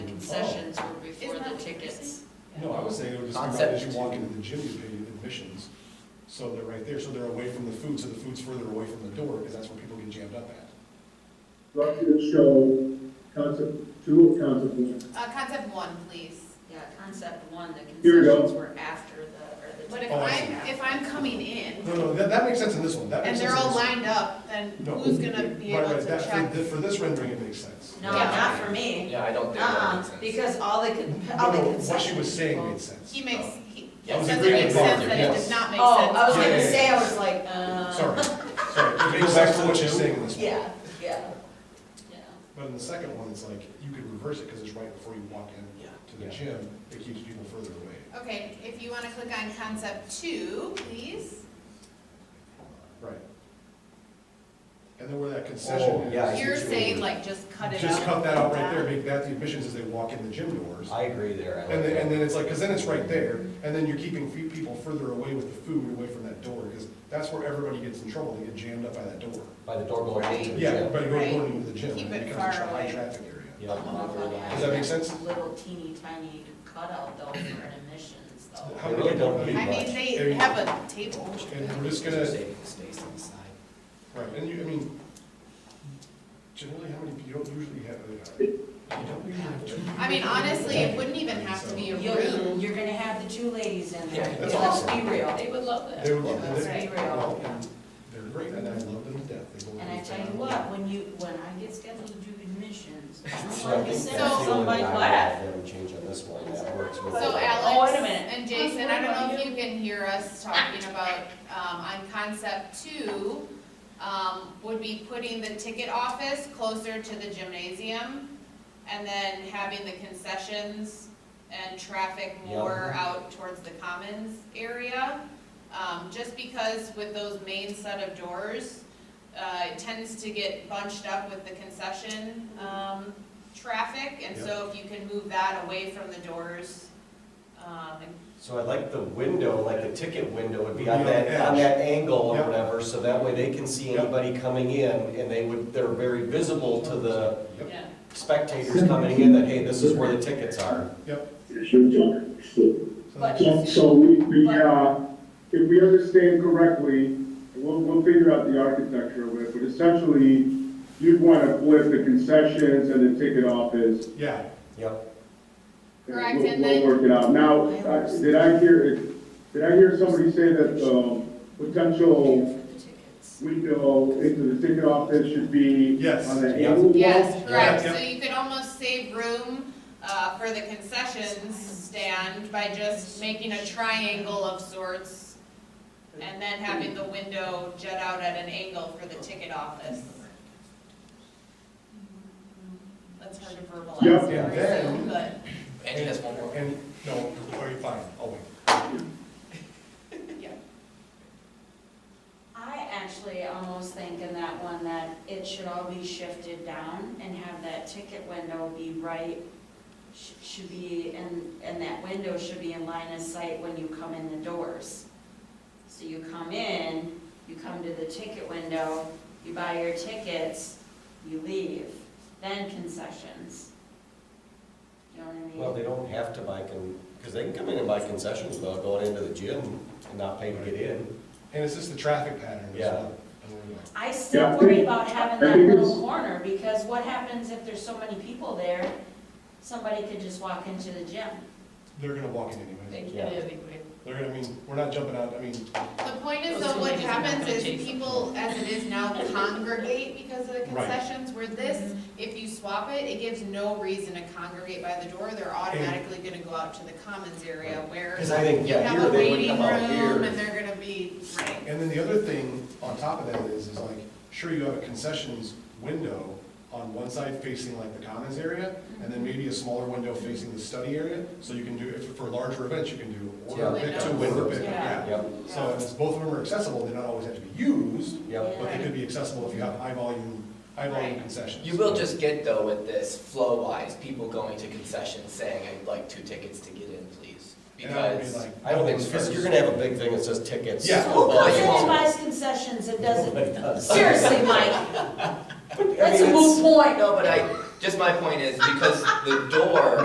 sessions were before Isn't that the what you're tickets. saying? No, I was saying, it would just be On about as you 17. walk into the gym, you pay admissions, so they're right there, so they're away from the food, so the food's further away from the door, because that's where people get jammed up at. Rocket show, concept, two of concept one. Uh, concept one, please. Yeah, concept one, the Here we go. concessions were after the, or the. But if Oh, I I'm, if I'm coming No, in no, that, that makes sense in this one, that and makes sense. they're in all this one. lined up, then No, who's gonna be right, able right, to that- for check? thi- For this rendering, it makes sense. No, Yeah. not for me. Yeah, I don't think that Uh-uh, makes sense. because all the, con- No, all the no, concessions. what she was saying made sense. He makes, Oh. he, it I was doesn't agreeing make with sense Roger, that it yes. does not make sense. Oh, I was Yeah, gonna yeah, yeah. say, I was like, uh. Sorry, sorry, it makes sense to what she's saying in this one. Yeah, yeah. But in the second one, it's like, you could reverse it, because it's right before you walk in Yeah. to the gym, it keeps people further away. Okay, if you wanna click on concept two, please. Right. And then where that concession Oh, is. yeah, I see You're what you saying mean. like just cut it out. Just cut that out right there, make that the admissions as they walk in the gym doors. I agree there. I And like then, and that. then it's like, because then it's right there, and then you're keeping fe- people further away with the food, away from that door, because that's where everybody gets in trouble, they get jammed up by that door. By the door going into the Yeah, gym. everybody going, Right. going into the gym, Keep and it it far becomes a away. high traffic area. Yeah. Does that make sense? Little teeny tiny cutout though for an admissions How though. They many really people- don't need I much. mean, There they you have a table. And we're just gonna, Saving space on the side. right, and you, I mean, generally, how many, you don't usually have, uh, you don't usually have two. I mean, honestly, it wouldn't even have to be a You're, room. you're gonna have the two ladies in there, Yeah, that's let's awesome. be real. They would love They would love, Let's they, be real. well, and they're great, and I love them to death. They go And I to tell town. you what, when you, when I get scheduled to do admissions, So I'm I like, think "Is that's there the only somebody thing I would left. have them change on this one, that works. So really well. Oh, Alex wait a minute. and Jason, I don't know if you can hear us talking about, um, on concept two, um, would be putting the ticket office closer to the gymnasium and then having the concessions and traffic more out towards the commons area. Um, just because with those main set of doors, uh, it tends to get bunched up with the concession, um, traffic. And so if you can move that away from the doors, um, and So I'd like the window, like the ticket window would be Be on on the that, on edge. that angle or Yep. whatever, so that way they can see Yep. anybody coming in and they would, they're very visible to the Yep, spectators coming in that, hey, this is where the tickets are. yep. So But- So, so we, we, uh, if we understand correctly, we'll, we'll figure out the architecture of it, but essentially, you'd wanna flip the concessions and the ticket office. Yeah, Yep, and Correct, we'll- and then- Oh, We'll work it out. Now, I- did I hear, did I hear somebody say that, um, potential The tickets. window into the ticket office should be Yes. on the Yeah. angle wall? Yes, correct, Yeah. so you could almost save room, uh, for the concessions stand by just making a triangle of sorts and then having the window jet out at an angle for the ticket office. That's hard to Yeah, verbalize yeah, over then- Zoom, but Angie has one more. and, no, are you fine? I'll wait. I actually almost think in that one that it should all be shifted down and have that ticket window be right, sh- should be, and, and that window should be in line of sight when you come in the doors. So you come in, you come to the ticket window, you buy your tickets, you leave, then concessions. You know what I well, mean? they don't have to buy con, because they can come in and buy concessions without going into the gym and not paying to get in. And it's just the traffic pattern as Yeah. well. And we're like, I Yeah, I still think- worry about having I that think little it's- corner, because what happens if there's so many people there? Somebody could just walk into the gym. They're gonna walk in anyway. They Yeah. did anyway. They're gonna, I mean, we're not jumping out, I mean, the point is Those though, what committees are not happens gonna is change. people, as it is now, congregate because of the Right. concessions, where this, if you swap it, it gives no reason to congregate by the door, they're automatically gonna go out to the commons area where Because I think, You yeah, have here a they would waiting come out room and here. they're gonna be, right. and then the other thing on top of that is, is like, sure, you have a concessions window on one side facing like the commons area, and then maybe a smaller window facing the study area, so you can do, if, for larger events, you can do order Yeah. pick, two Windows. window pick, Yeah. yeah. Yep, So if it's- both of them are accessible, they don't always have to be used, yep. but they could be accessible if you have high volume, high volume Right. concessions. You will just get though with this flow wise, people going to concessions saying, I'd like two tickets to get in, please. And I would be Because, like, I don't think, it's because fair. you're gonna have a big thing that says tickets. Yeah. Who Well, comes you in and won't. buys concessions and Nobody doesn't, does. seriously, Mike, I mean, that's a it's- moot point. no, but I, just my point is because the door